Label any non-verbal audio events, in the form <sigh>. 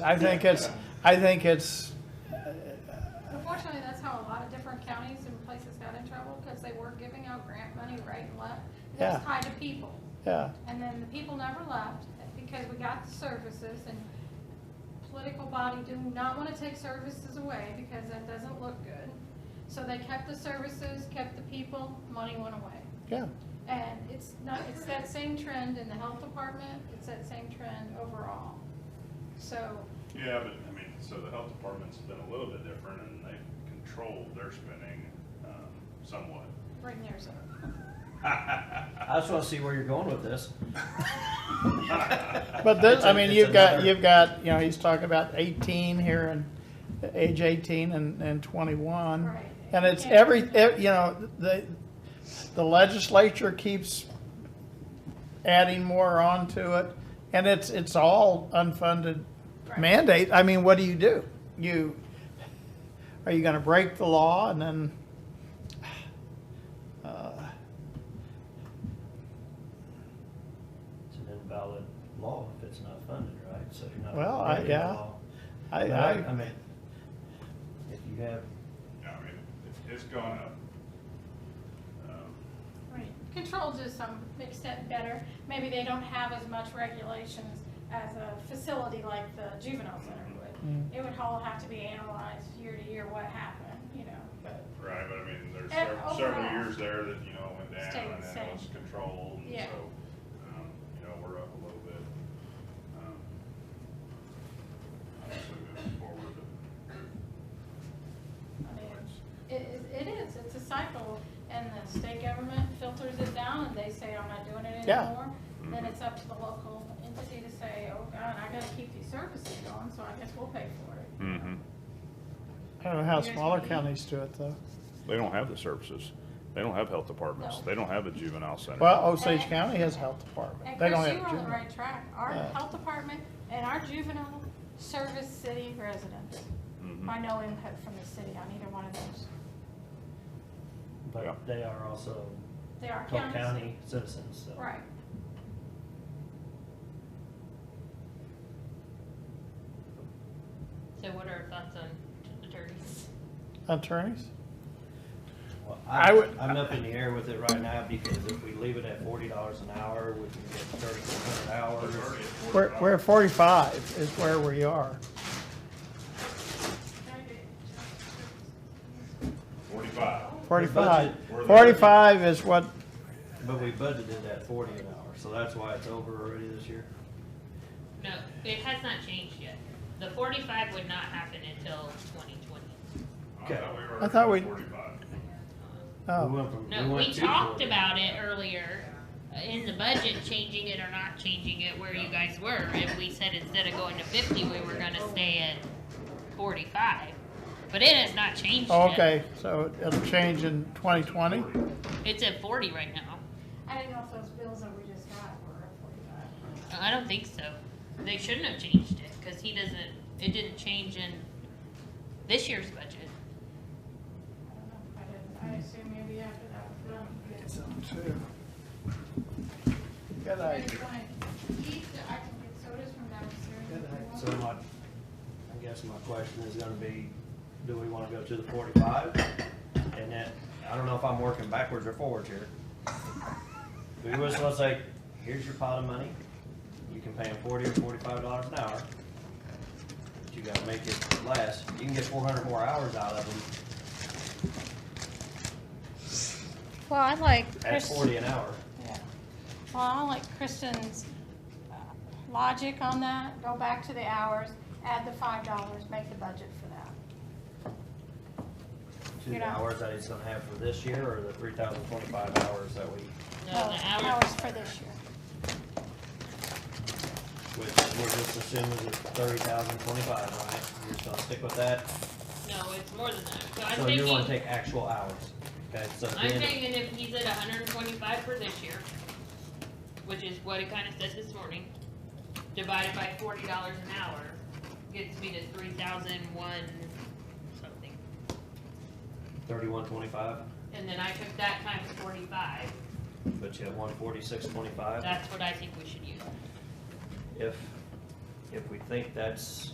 I think it's, I think it's, Unfortunately, that's how a lot of different counties and places got in trouble, because they were giving out grant money right and left. It Yeah. was tied to people, yeah, and then the people never left, because we got the services, and political body do not want to take services away, because that doesn't look good. So they kept the services, kept the people, money went away. yeah. And it's not, it's that same trend in the health department, it's that same trend overall. So, Yeah, but, I mean, so the health department's been a little bit different, and they've controlled their spending um, somewhat. bring theirs up. I just want to see where you're going with this. But this, It's I a- mean, it's you've got, another- you've got, you know, he's talking about eighteen here and age eighteen and, and twenty-one. Right. And it's Yeah. every, ev- you know, the, the legislature keeps adding more onto it. And it's, it's all unfunded Right. mandate. I mean, what do you do? You, are you gonna break the law and then? <sighs> uh, It's an invalid law if it's not funded, right? So you're not. Well, I- breaking the yeah. law. I, But I I, mean, if you have, Yeah, I mean, it- it's gone up. Um, Right, control to some extent better. Maybe they don't have as much regulations as a facility like the juvenile center Mm. would. It would all have to be analyzed year to year what happened, you know, but, Right, but I mean, there's And sev- several overall. years there that, you know, went Stayed down, the and then same. it was controlled, and Yeah. so, um, you know, we're up a little bit. um, Obviously, moving forward, I but mean, it's- it, it it is, it's a cycle. And the state government filters it down and they say, I'm not doing it Yeah. anymore. Then it's up to the local entity to say, oh God, I gotta keep these services going, so I guess we'll pay for it. Mm-hmm. I don't know how smaller counties do it though. They don't have the services. They don't have health departments. No. They don't have a juvenile center. Well, Osage County has a health department. And They Chris, don't you were have on the juvenile. right track. Our Yeah. health department and our juvenile service city residents. Mm-hmm. By no input from the city on either one of those. Yeah. but they are also They are Cole counties. County citizens, so. Right. So what are our thoughts on attorneys? Attorneys? Well, I would- I'm, I'm up in the air with it right now because if we leave it at forty dollars an hour, we can get thirty-four hundred hours. Thirty at forty We're, dollars. we're at forty-five is where we are. Forty-five. Forty-five. We're there. Forty-five is what, But we budgeted at forty an hour, so that's why it's over already this year. No, it has not changed yet. The forty-five would not happen until twenty twenty. Okay. I thought we were I thought at we- Forty-five. We oh, went from- No, went we to talked 40. about it earlier uh, in the budget, changing it or not changing it where you guys were. And we said instead of going to fifty, we were gonna stay at forty-five. But it has not changed oh, yet. okay, so it'll change in twenty twenty? It's at forty right now. I didn't know if those bills that we just got were forty-five. I don't think so. They shouldn't have changed it, cause he doesn't, it didn't change in this year's budget. I don't know. Hmm. I didn't, I assume maybe after that was done. yeah. Good If you idea. wanna eat, I can get sodas from downstairs. if you want. So my, I guess my question is gonna be, do we wanna go to the forty-five? And then, I don't know if I'm working backwards or forwards here. We was supposed to say, here's your pot of money, you can pay them forty or forty-five dollars an hour. But you gotta make it last, you can get four hundred more hours out of them Well, I like at Chris. forty an hour. Yeah. Well, I like Kristen's uh, logic on that. Go back to the hours, add the five dollars, make the budget for that. To You're the not- hours that he's gonna have for this year, or the three thousand twenty-five hours that we, No, the Oh, hours, for this year. which we're just assuming is thirty thousand twenty-five, right? You're just gonna stick with that? no, it's more than that. So I'm So you wanna thinking, take actual hours, okay, so at the I'm end of- thinking if he's at hundred and twenty-five for this year, which is what it kinda said this morning, divided by forty dollars an hour, gets me to three thousand one something. thirty-one twenty-five, And then I took that times forty-five, but you have one forty-six twenty-five. that's what I think we should use. If, if we think that's